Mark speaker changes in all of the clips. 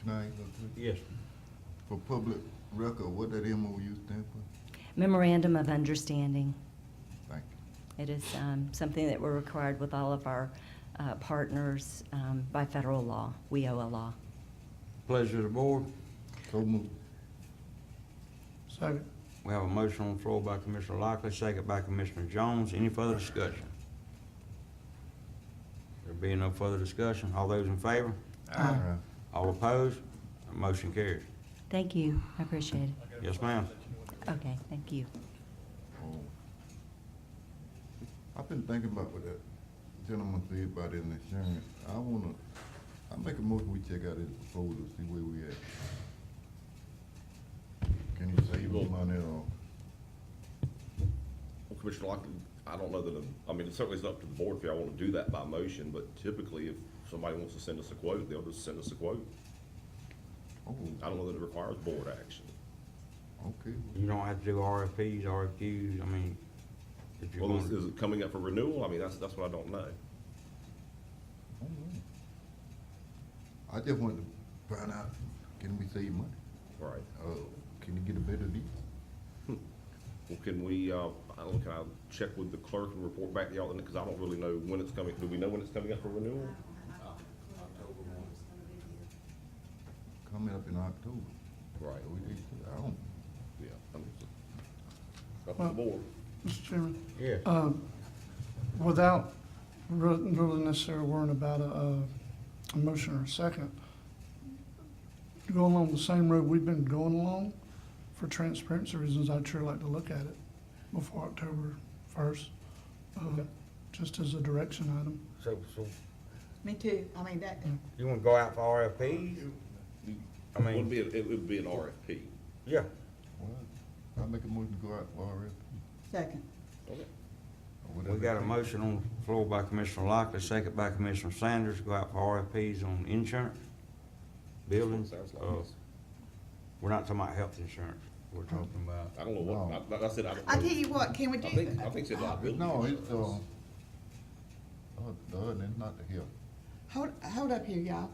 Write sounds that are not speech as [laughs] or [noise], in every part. Speaker 1: Can I go through?
Speaker 2: Yes.
Speaker 1: For public record, what that MOU stand for?
Speaker 3: Memorandum of Understanding.
Speaker 1: Thank you.
Speaker 3: It is um, something that we're required with all of our uh, partners um, by federal law, WIOA law.
Speaker 2: Pleasure of the board.
Speaker 1: So move.
Speaker 4: Second.
Speaker 2: We have a motion on the floor by Commissioner Lockley, second by Commissioner Jones. Any further discussion? There being no further discussion, all those in favor?
Speaker 1: Aye.
Speaker 2: All opposed? Motion carries.
Speaker 3: Thank you, I appreciate it.
Speaker 2: Yes, ma'am.
Speaker 3: Okay, thank you.
Speaker 1: Oh. I've been thinking about what that gentleman said about that insurance. I wanna, I make a motion, we check out his proposal, see where we at. Can he save us money or?
Speaker 5: Well, Commissioner Lockton, I don't know that, um, I mean, it certainly is up to the board if y'all want to do that by motion, but typically if somebody wants to send us a quote, they'll just send us a quote.
Speaker 1: Oh,
Speaker 5: I don't know that it requires board action.
Speaker 1: okay.
Speaker 2: You don't have to do RFPs, RFQs, I mean, if you
Speaker 5: Well, is,
Speaker 2: want.
Speaker 5: is it coming up for renewal? I mean, that's, that's what I don't know.
Speaker 1: All right. I just wanted to find out, can we save money?
Speaker 5: All right.
Speaker 1: Uh, can you get a better deal?
Speaker 5: Well, can we, uh, I don't, know, can I check with the clerk and report back to y'all, because I don't really know when it's coming, do we know when it's coming up for renewal?
Speaker 1: Coming up in October.
Speaker 5: Right,
Speaker 1: So we need to- I don't,
Speaker 5: yeah. I mean, it's Up to the board.
Speaker 4: Mr. Chairman,
Speaker 2: Yeah.
Speaker 4: um, without re- really necessarily worrying about a, a- a motion or a second, going along the same road we've been going along, for transparency reasons, I'd sure like to look at it before October first, uh, just as a direction item.
Speaker 2: So, so
Speaker 6: Me too. I mean, that,
Speaker 2: you wanna go out for RFPs? I mean-
Speaker 5: It would be, it would be an RFP.
Speaker 2: Yeah.
Speaker 1: well, I make a motion to go out for RFP.
Speaker 6: second.
Speaker 5: Okay.
Speaker 1: or whatever
Speaker 2: We got a
Speaker 1: it
Speaker 2: motion on the floor by Commissioner Lockley, second by Commissioner Sanders, go out for RFPs on insurance, buildings.
Speaker 5: Sounds like
Speaker 2: uh,
Speaker 5: this.
Speaker 2: We're not talking about health insurance, we're talking about,
Speaker 5: I don't know what, I- like I said, I don't.
Speaker 6: I
Speaker 5: know.
Speaker 6: tell you what, can we
Speaker 5: I
Speaker 6: do
Speaker 5: think, I
Speaker 6: that?
Speaker 5: think it's liability.
Speaker 1: takes. No, it's, uh,
Speaker 5: insurance.
Speaker 1: oh, the other than not the hill.
Speaker 6: Hold, hold up here, y'all.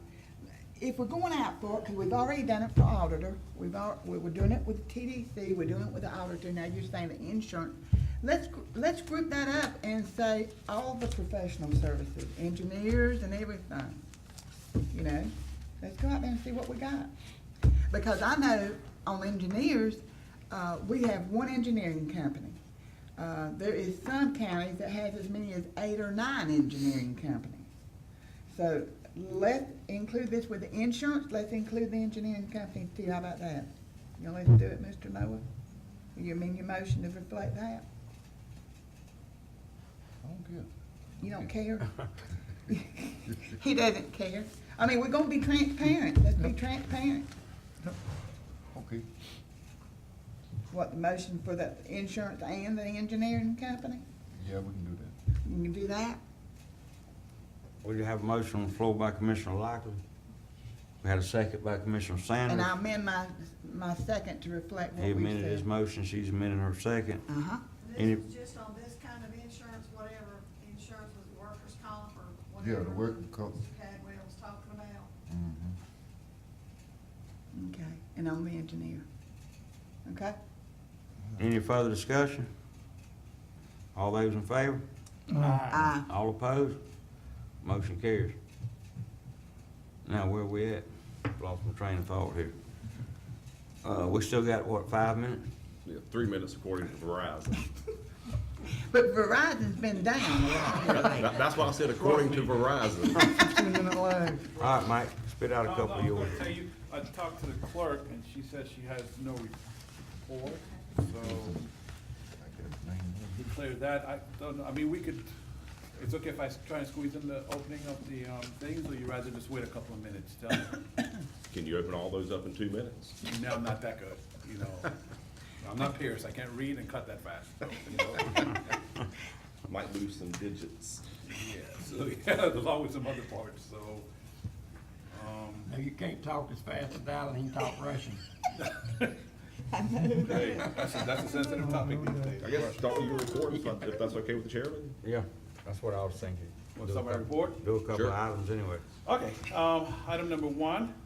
Speaker 6: If we're going out for it, because we've already done it for auditor, we've al, we were doing it with TDC, we're doing it with the auditor, now you're saying the insurance. Let's, gr- let's group that up and say all the professional services, engineers and everything. You know, let's go out there and see what we got. Because I know on engineers, uh, we have one engineering company. Uh, there is some counties that has as many as eight or nine engineering companies. So let's include this with the insurance, let's include the engineering companies too, how about that? Y'all let's do it, Mr. Noah? You mean your motion to reflect that?
Speaker 1: I don't care.
Speaker 6: You don't care? He doesn't care. I mean, we're gonna be transparent, let's be transparent.
Speaker 1: Okay,
Speaker 6: What, the motion for the insurance and the engineering company?
Speaker 1: yeah, we can do that.
Speaker 6: You can do that?
Speaker 2: we do have a motion on the floor by Commissioner Lockley. We had a second by Commissioner
Speaker 6: And
Speaker 2: Sanders.
Speaker 6: I amend my, my second to reflect
Speaker 2: He
Speaker 6: what we
Speaker 2: amended his
Speaker 6: said.
Speaker 2: motion, she's amending her second.
Speaker 6: Uh-huh,
Speaker 2: Any-
Speaker 7: This is just on this kind of insurance, whatever insurance was workers' comp or
Speaker 1: Yeah,
Speaker 7: whatever.
Speaker 1: the working comp.
Speaker 7: Mr. Cadwell was talking about.
Speaker 1: Mhm.
Speaker 6: okay, and I'm the engineer. Okay?
Speaker 2: Any further discussion? All those in favor?
Speaker 6: Aye.
Speaker 2: All opposed? Motion carries. Now, where we at? Lost my train of thought here. Uh, we still got, what, five minutes?
Speaker 5: Yeah, three minutes according to [laughs] Verizon.
Speaker 6: But Verizon's been down a lot.
Speaker 5: That- That's why I said according to Verizon.
Speaker 4: Fifteen minute lag.
Speaker 2: All right, Mike, spit out a
Speaker 8: No,
Speaker 2: couple
Speaker 8: no,
Speaker 2: of yours.
Speaker 8: I was gonna tell you, I talked to the clerk, and she said she has no report,
Speaker 1: I
Speaker 8: so
Speaker 1: got his name.
Speaker 8: we cleared that. I don't know, I mean, we could, it's okay if I s- try and squeeze in the opening of the um, things, or you rather just wait a couple of minutes? Tell me.
Speaker 5: Can you open all those up in two minutes?
Speaker 8: No, I'm not that good, you know. I'm not Pierce, I can't read and cut that fast. you know?
Speaker 5: Might lose some digits.
Speaker 8: Yeah, so, [laughs] yeah, there's always some other parts, so. um,
Speaker 9: No, you can't talk as fast as Alan, he can talk Russian.
Speaker 8: hey, That's a that's a sensitive topic these days.
Speaker 5: I guess start with your report, if I- if that's okay with the chairman?
Speaker 2: Yeah, that's what I was thinking.
Speaker 8: Want
Speaker 2: Do a
Speaker 8: somebody to
Speaker 2: couple-
Speaker 8: report?
Speaker 2: Do a couple of
Speaker 5: Sure.
Speaker 2: items anyway.
Speaker 8: Okay, um, item number one,